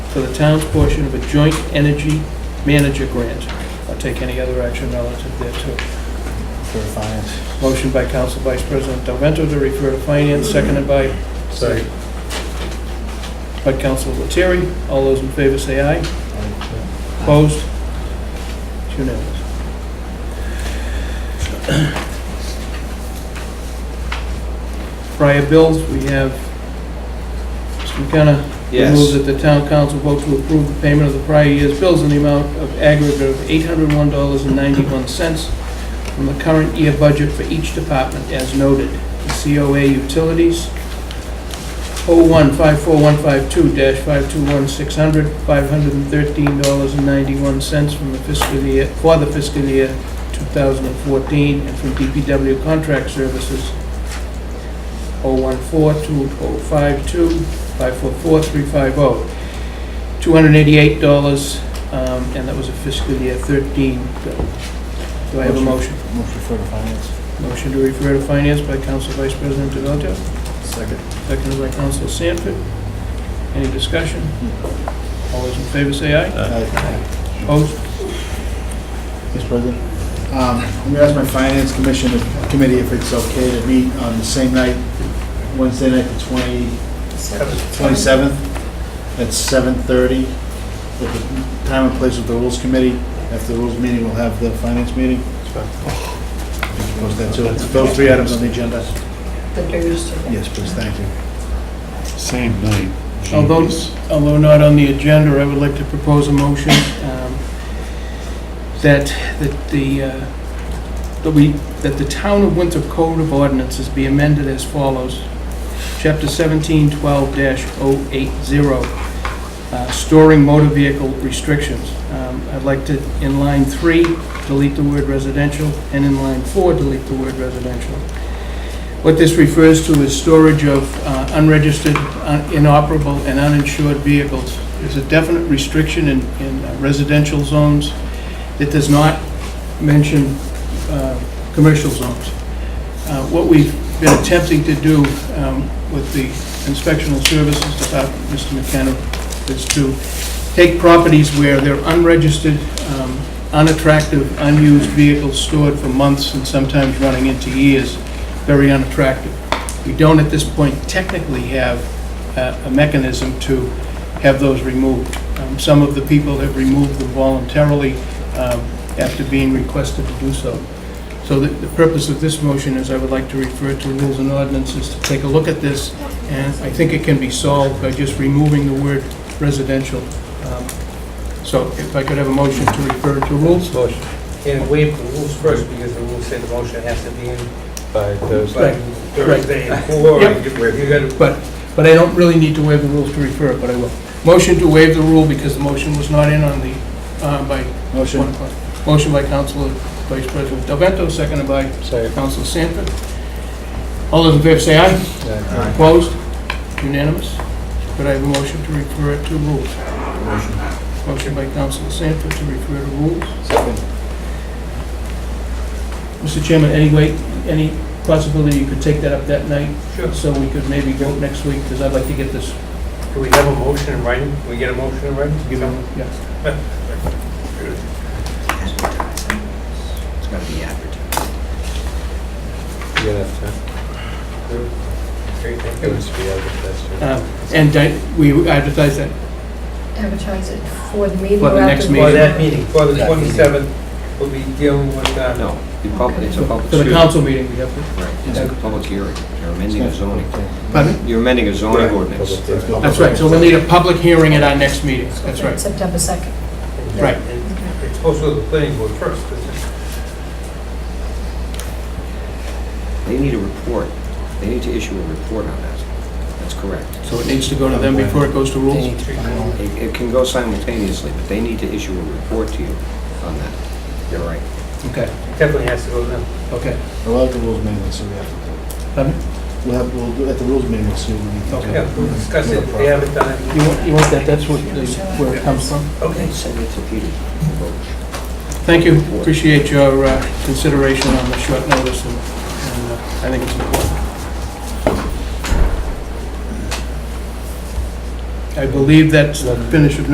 for the town's portion of a joint energy manager grant, or take any other action relative thereto. for finance. Motion by Council Vice President Del Vento to refer to finance, seconded by, Second. by Council Lettieri. All those in favor say aye. Opposed? It's unanimous. Prior bills, we have Mr. McKenna. Move that the town council vote to approve the payment of the prior year's bills in the amount of aggregate of $801.91 from the current year budget for each department as noted. The COA Utilities, 0154152-521600, $513.91 from the fiscal year, for the fiscal year 2014, and from DPW Contract Services, 0142052-544350, $288, um, and that was a fiscal year 13 bill. Do I have a motion? Motion for the finance. Motion to refer to finance by Council Vice President Devoto. Second. Seconded by Counsel Sanford. Any discussion? All those in favor say aye. Opposed? Mr. President? Um, I'm going to ask my finance commission committee if it's okay to meet on the same night, Wednesday night, the 20 27th, at 7:30, at the time and place of the rules committee. After the rules meeting, we'll have the finance meeting. Post that, so it's those three items on the agenda. The Thursday. Yes, please, thank you. Same night. Although, although not on the agenda, I would like to propose a motion um, that, that the, uh, that we, that the Town of Winthrop Code of Ordinances be amended as follows. Chapter 1712-080, uh, storing motor vehicle restrictions. Um, I'd like to, in line three, delete the word residential, and in line four, delete the word residential. What this refers to is storage of uh, unregistered, un- inoperable, and uninsured vehicles. There's a definite restriction in in residential zones that does not mention uh, commercial zones. Uh, What we've been attempting to do um, with the inspectional services department, Mr. McKenna, is to take properties where there are unregistered, um, unattractive, unused vehicles stored for months and sometimes running into years, very unattractive. We don't at this point technically have uh, a mechanism to have those removed. Um, Some of the people have removed them voluntarily um, after being requested to do so. So the the purpose of this motion is I would like to refer to rules and ordinances to take a look at this, and I think it can be solved by just removing the word residential. Um, So if I could have a motion to refer to rules? Motion. And waive the rules first, because the rules say the motion has to be in By by Thursday. Thursday at four. Yep. You gotta, But, but I don't really need to waive the rules to refer it, but I will. Motion to waive the rule because the motion was not in on the, uh, by Motion? one o'clock. Motion by Council Vice President Del Vento, seconded by Second. Council Sanford. All those in favor say aye. Aye. Opposed? Unanimous? Could I have a motion to refer it to rules? Motion by Council Sanford to refer to rules. Second. Mr. Chairman, any way, any possibility you could take that up that night? Sure. So we could maybe vote next week, because I'd like to get this, do we have a motion in writing? Can we get a motion in writing? you know, yeah. It's gonna be advertised. Yeah, that's right. Okay, thank It you. was the other question. Uh, And di- we advertise that, Advertise it for the meeting. For the or next after- meeting. For that meeting, for the Yeah. 27th, we'll be dealing with, uh, No, the public, it's a public for the hearing. council meeting, we have to. Right, it's a public hearing. You're amending a zoning, Pardon? you're amending a zoning Right. ordinance. That's right, so we'll need a public hearing at our next meeting, that's right. September 2nd. Right. and It's supposed to go to the planning board first, isn't it? They need a report. They need to issue a report on that. That's correct. So it needs to go to them before it goes to rules? It it can go simultaneously, but they need to issue a report to you on that. You're right. Okay, It Definitely has to go to them. okay. We'll have the rules meeting, we'll see what we have to do. Pardon? We'll have, we'll do, at the rules meeting, we'll see what we need to do. Okay. Yeah, we'll discuss it, if they haven't done it. You want, you want that, that's what, the- where it comes from? Okay. They send it to Peter. Thank you, appreciate your uh, consideration on the short notice, and and, uh, I think it's important. I believe that's the finish of